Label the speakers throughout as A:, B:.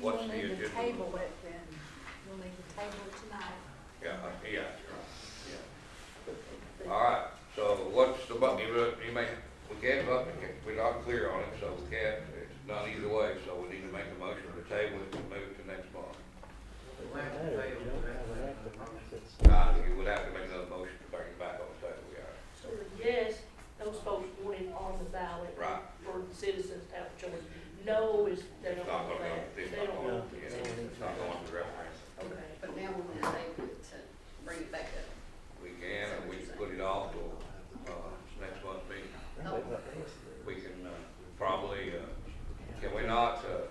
A: What's the
B: We'll need to
A: agenda?
B: table it then. We'll need to table it tonight.
A: Yeah, uh, yeah, you're right, yeah. All right, so what's the button, you look- you may, we can't vote, we can't- we're not clear on it, so we can't, it's not either way, so we need to make a motion to table it and move it to next month. Uh, you would have to make another motion to bring it back on the table, yeah.
C: So the yes, those folks want it on the ballot.
A: Right.
C: For the citizens to have a choice. No is, they
A: It's
C: don't
A: not
C: want
A: gonna go,
C: that.
A: it's
C: They
A: not
C: don't
A: going,
C: want
A: yeah,
C: it.
A: it's not going to referendum.
C: Okay.
D: But now we're gonna table it to bring it back up.
A: We can, or we can put it off till, uh, next month's meeting. We can, uh, probably, uh, can we not, uh,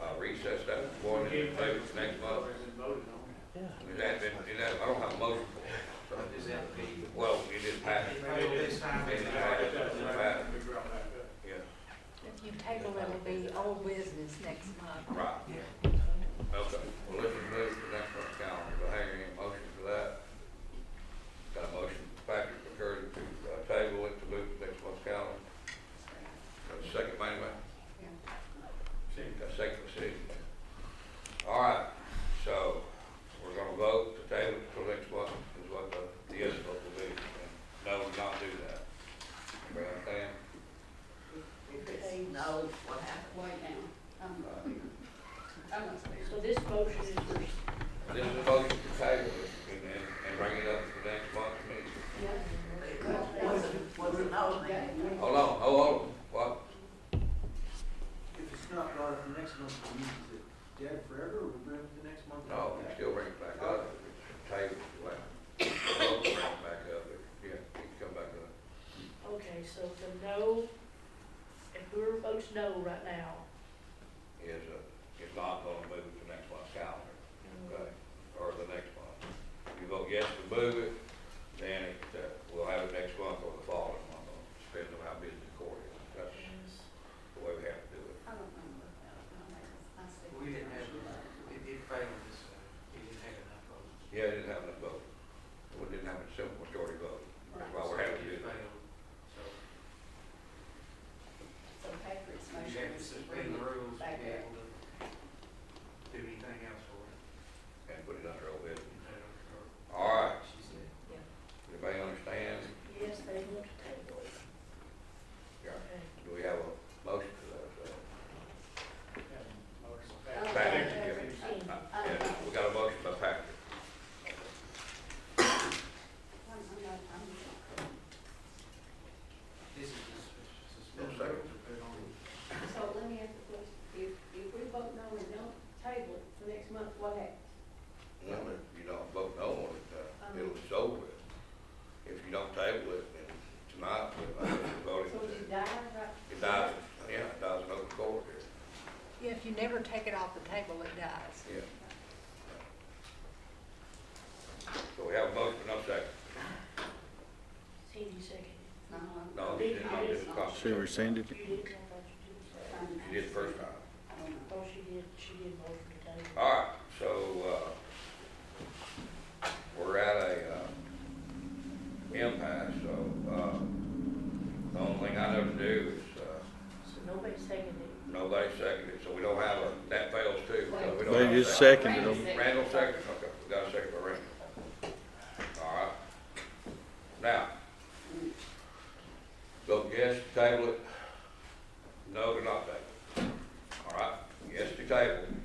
A: uh, recess that one and move it to next month? Is that, is that, I don't have a motion for it.
E: Is that the?
A: Well, it just passed, yeah,
B: If you table it, it'll be old business next month.
A: right. Okay, well, let's move to next month's calendar, do I hear any motion for that? Got a motion, Patrick McCurdy, to uh, table it to move to next month's calendar, got a second, by anybody? Got a second, by Sid? All right, so, we're gonna vote to table it till next month, is what the, the yes vote will be, and no, we're not do that. Everybody understand?
D: If it's no, what happened, wait now, Um, I'm, I'm not saying.
C: So this motion is for,
A: This is a motion to table it and, and and bring it up for next month's meeting.
D: Was it no then?
A: Hold on, oh, hold on, what?
E: If it's not brought up the next month, we use it dead forever, or we bring it the next month?
A: No, we still bring it back up, table it, well, we'll bring it back up, yeah, it can come back up.
C: okay, so the no, if we're votes no right now,
A: Is, uh, is not gonna move it to next month's calendar, okay, or the next month. If you vote yes to move it, then it, uh, we'll have it next month or the following month, depending on how busy the court is. That's
C: is-
A: the way we have to do it.
D: I don't know what that, I said.
E: We didn't have, it, it failed this, we didn't have enough votes.
A: Yeah, it didn't have enough vote. We didn't have a simple majority vote. That's why we're having to do
E: It
A: that.
E: failed, so
D: So Patrick's
E: we
D: motion
E: have to
D: is to bring
E: suspend the
D: it
E: rules to
D: back
E: be
D: up.
E: able to do anything else for it.
A: and put it under old business.
E: you know, or-
A: All right,
E: She said.
A: everybody understand?
C: Yes, they want to table it.
A: Yeah.
C: Okay.
A: Do we have a motion to
D: Oh,
A: Back.
D: Patrick, I-
A: that? Uh, Yeah, we got a motion by Patrick.
D: I'm- I'm not- I'm
E: This is just
A: One
E: suspended
A: second.
E: rules to put on.
D: not. So let me ask a question, if, if we vote no and don't table it for next month, what happens?
A: No, if you don't vote no on it,
D: Um,
A: uh, it'll be over with. If you don't table it, then tonight, we're voting.
D: So you die right?
A: It dies, yeah, it dies in open court here,
B: Yeah, if you never take it off the table, it dies.
A: yeah. So we have a motion, no second.
C: Cindy second.
D: No, I'm-
A: No, you didn't, you didn't call.
F: She rescinded it.
C: You did, I thought you did say.
A: You did first time.
D: I don't know.
C: Oh, she did, she did motion to table.
A: All right, so, uh, we're at a, uh, impasse, so, uh, the only thing I know to do is, uh,
C: So nobody seconded it.
A: nobody seconded, so we don't have a, that fails too, so we don't have a.
F: They just
A: second.
F: seconded them.
A: Randall seconded, okay, we got a second by Randall. All right. Now, vote yes to table it, no to not table it. All right, yes to table,
E: um,